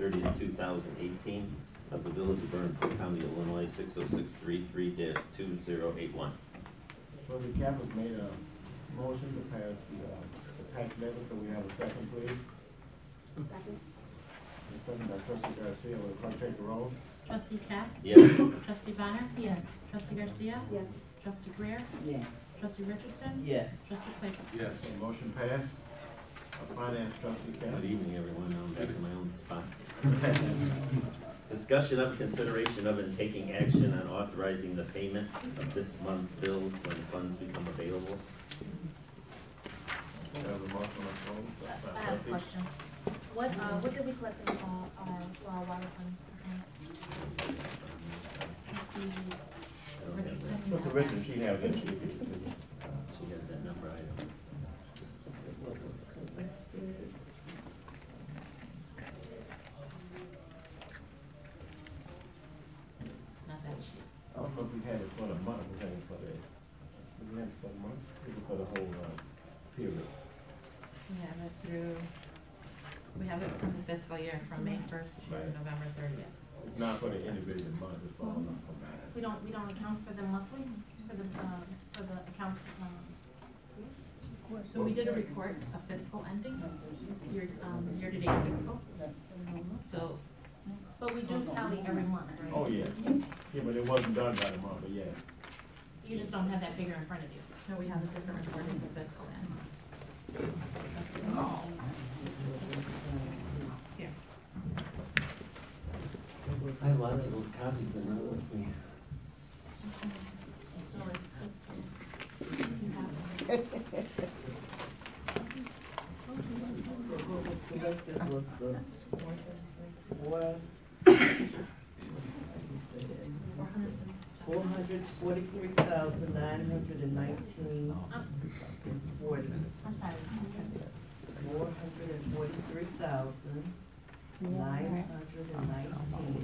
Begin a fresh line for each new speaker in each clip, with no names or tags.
30th, 2018 of the Village of Vernon Park, County, Illinois, 60633-2081.
So the cap has made a motion to pass the, uh, the tax levy, so we have a second, please.
Second.
The second by trustee Garcia, will the clerk take the roll?
Trustee Cap?
Yes.
Trustee Bonner?
Yes.
Trustee Garcia?
Yes.
Trustee Greer?
Yes.
Trustee Richardson?
Yes.
Trustee Claybrook?
Yes.
Okay, motion passed. Uh, Finance trustee
Good
Cap.
evening, everyone. Now I'm back in my own spot. Discussion of consideration of and taking action on authorizing the payment of this month's bills when funds become available.
We have a motion on the floor. by
I have
trustee-
a question. What, uh, what did we collect in, uh, our, for our water fund this month?
Trustee
I don't have that.
Richardson?
Mr. Richards, she has it, she gives it to you.
She has that number, I don't.
Not that sheet.
I don't know if we had it for the month, we had it for the, we had it for the month, we had it for the whole, uh, period.
We have it through, we have it from the fiscal year, from May first to
Right.
November thirtieth.
It's not for the individual month, it's for all of them combined.
We don't, we don't account for the monthly, for the, um, for the accounts, um,
So we did a report of fiscal ending, year, um, year-to-date fiscal. So,
but we do tally every month, right?
Oh, yeah, yeah, but it wasn't done by the month, but yeah.
You just don't have that figure in front of you.
no, we have a different reporting for fiscal end. Here.
I have lots of those copies, but not with me.
So it's,
Selected was the one. Four hundred forty-three thousand nine hundred and nineteen and forty.
I'm sorry.
Four hundred and forty-three thousand nine hundred and nineteen and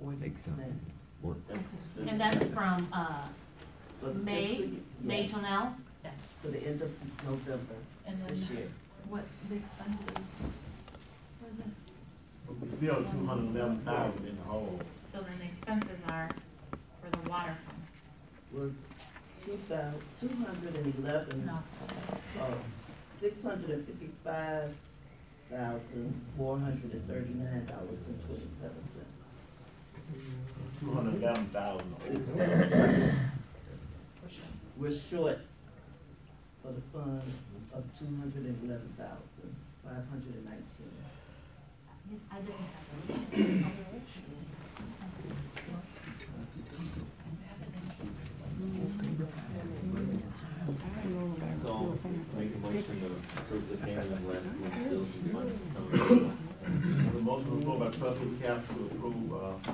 forty cents.
That's-
And
that's-
that's from, uh, May, May till now?
Yes.
So the end of November
And
this
then
year.
what the expenses for this?
It's still two hundred and eleven thousand in the hole.
So then the expenses are for the water fund.
was two thousand, two hundred and eleven, oh, six hundred and fifty-five thousand, four hundred and thirty-nine dollars and twenty-seven cents.
Two hundred and eleven thousand.
We're short for the fund of two hundred and eleven thousand, five hundred and nineteen.
I didn't have that.
So, make a motion to approve the payment of last month's bills and money become available.
The motion was by trustee Cap to approve, uh,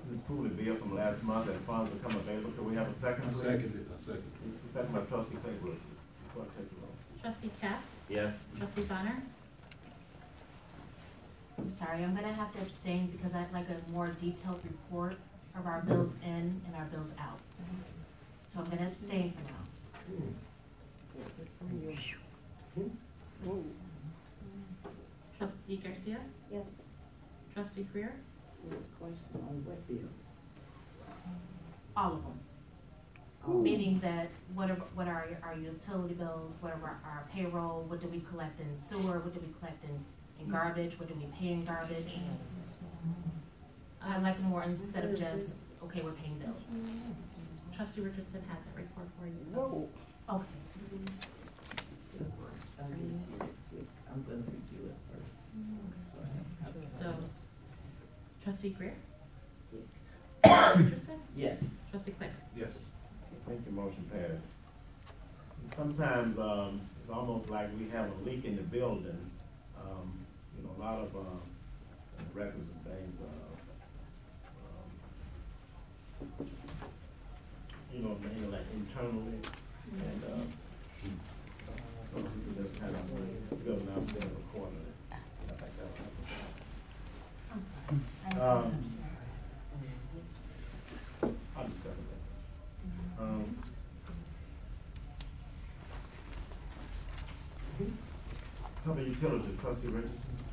to approve the bill from last month that funds become available. Can we have a second?
I
please?
second it, I second it.
Second by trustee Claybrook. Clerk, take the roll.
Trustee Cap,
Yes,
trustee Bonner,
I'm sorry, I'm gonna have to abstain because I'd like a more detailed report of our bills in and our bills out. So I'm gonna abstain for now.
trustee Garcia,
Yes.
trustee Greer,
There's a question on what bill?
All of them. Meaning that what are, what are your- our utility bills, what are our- our payroll, what do we collect in sewer, what do we collect in, in garbage, what do we pay in garbage? I like more instead of just, okay, we're paying bills.
trustee Richardson has that report for you. so-
Whoa.
Okay,
I'll get it to you next week. I'm gonna review it first. So I have-
So, trustee Greer?
Yes.
Richardson,
Yes.
trustee Claybrook?
Yes.
Thank you, motion passed. Sometimes, um, it's almost like we have a leak in the building. Um, you know, a lot of, um, records and things, uh, um, you know, mainly like internally and, uh, so we just kind of building out there accordingly. I think that'll help.
I'm sorry. I
Um,
apologize.
I'll discuss that. Um, Public utilities, trustee Richardson?